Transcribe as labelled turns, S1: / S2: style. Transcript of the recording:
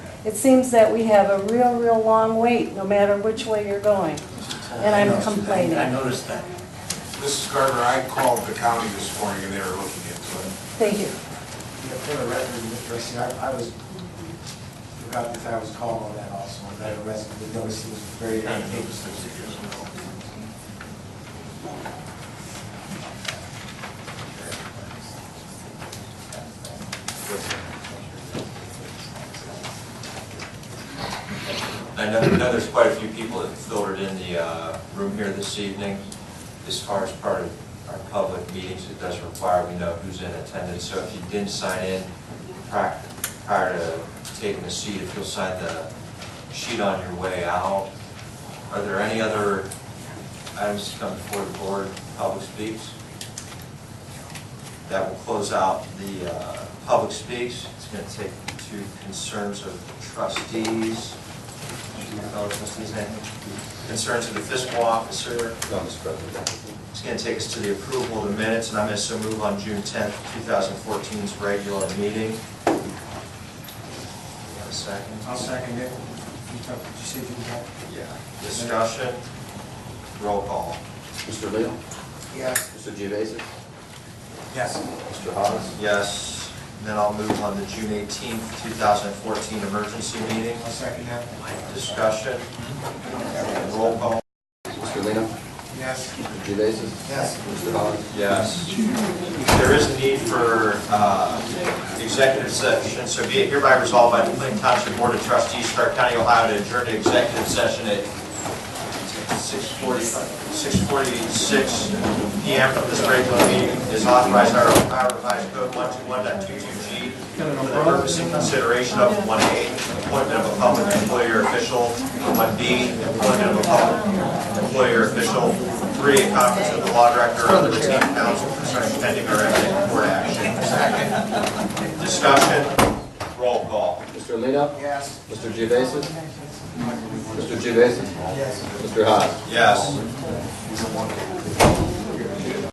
S1: It seems that we have a real, real long wait, no matter which way you're going. And I'm complaining.
S2: I noticed that.
S3: Mrs. Garber, I called the county this morning and they were looking into it.
S1: Thank you.
S4: Yeah, for the record, Mr. Ricci, I I was, forgot that I was called on that also, and that arrested, the notice was very
S3: I
S4: ambiguous.
S3: noticed this years ago.
S5: I know, I know there's quite a few people that filtered in the uh, room here this evening. As far as part of our public meetings, it does require we know who's in attendance. So if you didn't sign in pri- prior to taking a seat, if you'll sign the sheet on your way out. Are there any other items to come before the board, public speaks? That will close out the uh, public speaks. It's going to take two concerns of trustees. Fellow trustees, any Concerns of the fiscal officer.
S6: No, Mr. President.
S5: It's going to take us to the approval of the minutes, and I'm going to so move on June 10th, 2014's regular meeting. Have a second?
S4: I'll second it. You talk- you said you got?
S5: Yeah. Discussion? Roll call.
S6: Mr. Leo?
S4: Yes.
S6: Mr. Gevasis?
S4: Yes.
S6: Mr. Hawes?
S5: Yes. Then I'll move on to June 18th, 2014 emergency meeting.
S4: I'll second that.
S5: Discussion? Roll call.
S6: Mr. Leo?
S4: Yes.
S6: Mr. Gevasis?
S4: Yes.
S6: Mr. Hawes?
S5: Yes. There is a need for uh, executive session, so be it hereby resolved by the Clinton Township Board of Trustees, Stark County, Ohio, to adjourn to executive session at 6:40 6:46 PM from this regular meeting is authorized under Ohio Revised Code 121.22G for the purpose and consideration of 1A, appointment of a public employer official, 1B, appointment of a public employer official, 3, a conference of the law director of the retained counsel concerning pending or imminent court action. Second. Discussion, roll call.
S6: Mr. Leo?
S4: Yes.
S6: Mr. Gevasis? Mr. Gevasis?
S4: Yes.
S6: Mr. Hawes?
S5: Yes.